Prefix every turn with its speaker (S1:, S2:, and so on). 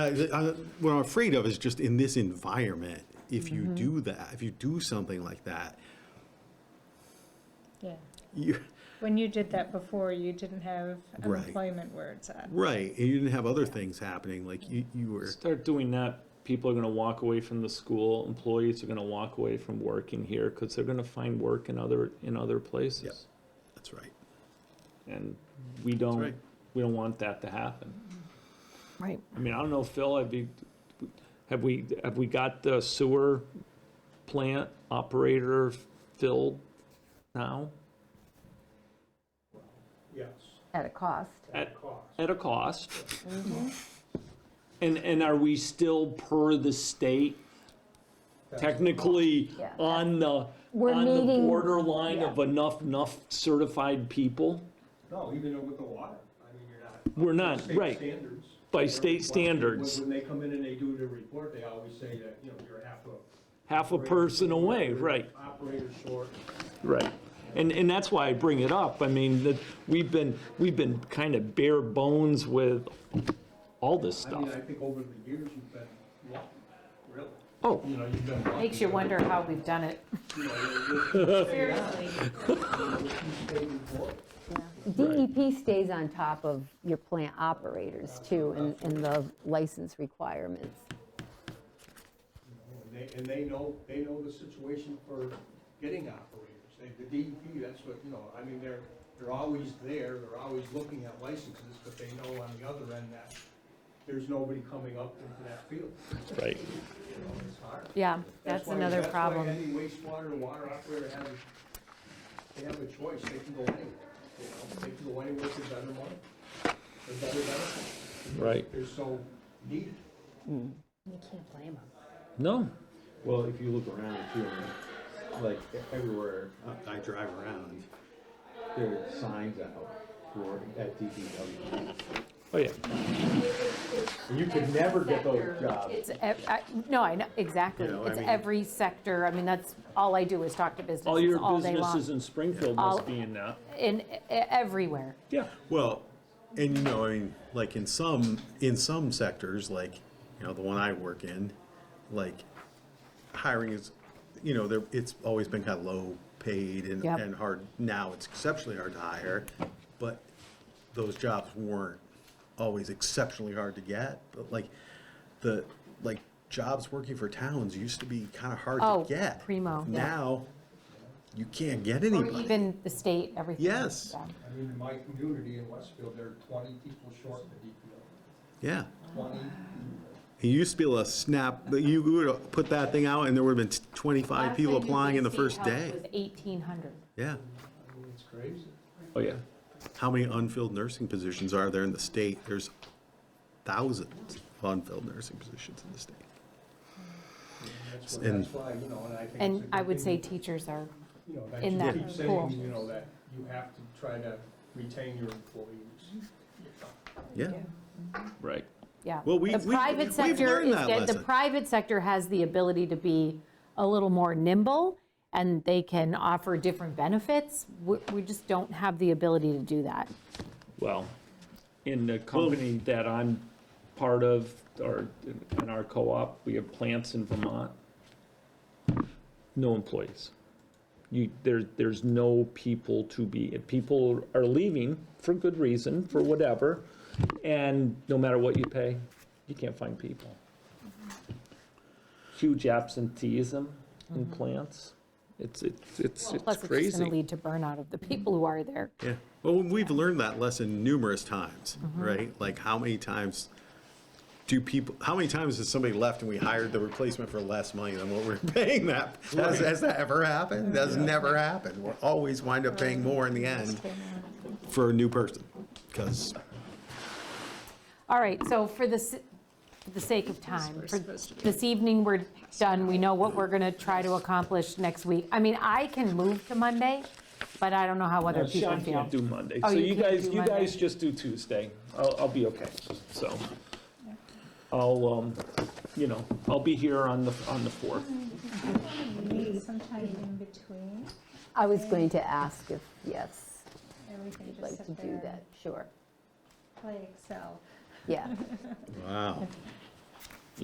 S1: I- I- Uh, What I'm afraid of is just in this environment, if you do that, if you do something like that,
S2: Yeah.
S1: you,
S2: When you did that before, you didn't have
S1: Right.
S2: unemployment words on.
S1: right, and you didn't have other things happening, like you, you were,
S3: Start doing that, people are gonna walk away from the school, employees are gonna walk away from working here, because they're gonna find work in other, in other places.
S1: that's right.
S3: And we don't,
S1: right.
S3: we don't want that to happen.
S4: Right.
S3: I mean, I don't know, Phil, have you, have we, have we got the sewer plant operator filled now?
S5: Yes,
S4: At a cost.
S3: At,
S5: cost.
S3: at a cost? And, and are we still per the state technically
S4: Yeah.
S3: on the,
S4: We're
S3: on the
S4: meeting-
S3: borderline
S4: yeah.
S3: of enough, enough certified people?
S5: No, even with the water, I mean, you're not.
S3: We're not,
S5: State
S3: right.
S5: standards.
S3: By state
S5: When- when-
S3: standards.
S5: When they come in and they do their report, they always say that, you know, you're half a.
S3: Half a person away, right?
S5: Operator short.
S3: Right. And, and that's why I bring it up. I mean, that, we've been, we've been kind of bare bones with all this
S5: I mean, I
S3: stuff.
S5: think over the years, you've been lucky, really.
S3: Oh.
S5: You know, you've been lucky.
S4: Makes you wonder how we've done it.
S5: You know, you're- you're-
S4: Seriously.
S5: you're a state employee.
S6: DEP E stays on top of your plant operators too, and, and the license requirements.
S5: And they, and they know, they know the situation for getting operators. They- The DEP, that's what, you know, I mean, they're, they're always there, they're always looking at licenses, but they know on the other end that there's nobody coming up into that field.
S3: Right.
S5: You know, it's hard.
S4: Yeah,
S5: That's
S4: that's
S5: why-
S4: another
S5: That's why
S4: problem.
S5: any wastewater or water operator has, they have a choice, they can go anywhere, you know, they can go anywhere for better money, for better benefits.
S3: Right.
S5: They're so needed.
S3: No.
S7: Well, if you look around too, like e-, everywhere, uh,
S1: I drive around.
S7: there are signs out for at DPW.
S3: Oh, yeah.
S7: And you could never get those jobs.
S4: It's, ev- I- no, I know, exactly.
S1: You know, I
S4: It's
S1: mean-
S4: every sector. I mean, that's, all I do is talk to
S3: All
S4: businesses
S3: your
S4: all day
S3: businesses
S4: long.
S3: in Springfield
S4: All-
S3: must be in that.
S4: In, e- everywhere.
S3: Yeah.
S1: Well, and you know, I mean, like in some, in some sectors, like, you know, the one I work in, like hiring is, you know, there, it's always been kind of low paid and,
S4: Yep.
S1: and hard. Now it's exceptionally hard to hire, but those jobs weren't always exceptionally hard to get. But like the, like jobs working for towns used to be kind of hard
S4: Oh,
S1: to get.
S4: primo, yeah.
S1: Now you can't get
S4: Or
S1: anybody.
S4: even the state, everything.
S1: Hmm. Yes.
S4: Yeah.
S5: I mean, in my community in Westfield, there are twenty people short in the E
S1: Yeah.
S5: DPW, twenty.
S1: It used to be able to snap, but you would have put that thing out and there would have been 25 people applying in the first day.
S4: It was 1,800.
S1: Yeah.
S5: I mean, it's crazy.
S3: Oh, yeah.
S1: How many unfilled nursing positions are there in the state? There's thousands of unfilled nursing positions in the state.
S5: That's why,
S1: And-
S5: that's why, you know, and I think. it's a
S4: And
S5: good
S4: I would say
S5: thing,
S4: teachers are,
S5: you know, that
S4: in
S5: you
S4: that
S5: keep saying,
S4: pool.
S5: You know, that you have to try to retain your employees.
S1: Yeah.
S3: Right.
S4: yeah.
S1: Well, we-
S4: The
S1: we-
S4: private
S1: we've
S4: sector
S1: learned
S4: is,
S1: that
S4: de- the
S1: lesson.
S4: private sector has the ability to be a little more nimble, and they can offer different benefits. We we just don't have the ability to do that.
S3: Well, in the company that I'm part of, or in- in our co-op, we have plants in Vermont. No employees. You, there, there's no people to be, people are leaving for good reason, for whatever, and no matter what you pay, you can't find people. Huge absenteeism in plants. It's, it's, it's it's
S4: Mm-hmm. Plus, it's just going to
S3: crazy.
S4: lead to burnout of the people who are there.
S1: Yeah. Well, we've learned that lesson numerous times, right? Like how many times do people, how many times has somebody left and we hired the replacement for less money than what we're paying that? Has, has that ever happened? That's never happened. We're always wind up paying more in the end for a new person because
S4: All right, so for the, s- for the sake of time, for this evening, we're done. We know what we're going to try to accomplish next week. I mean, I can move to Monday, but I don't know how other people
S3: Sean
S4: feel.
S3: can't do Monday,
S4: Oh,
S3: so
S4: you
S3: you
S4: can't
S3: guys,
S4: do
S3: you
S4: Monday?
S3: guys just do Tuesday. I'll, I'll be okay, so. I'll, um, you know, I'll be here on the, on the fourth.
S2: Meet sometime in between,
S6: I was going to ask if, yes,
S2: and we can
S6: I'd like
S2: just
S6: to
S2: sit
S6: do
S2: there
S6: that,
S2: and
S6: sure.
S2: play Excel.
S6: Yeah,
S1: Wow.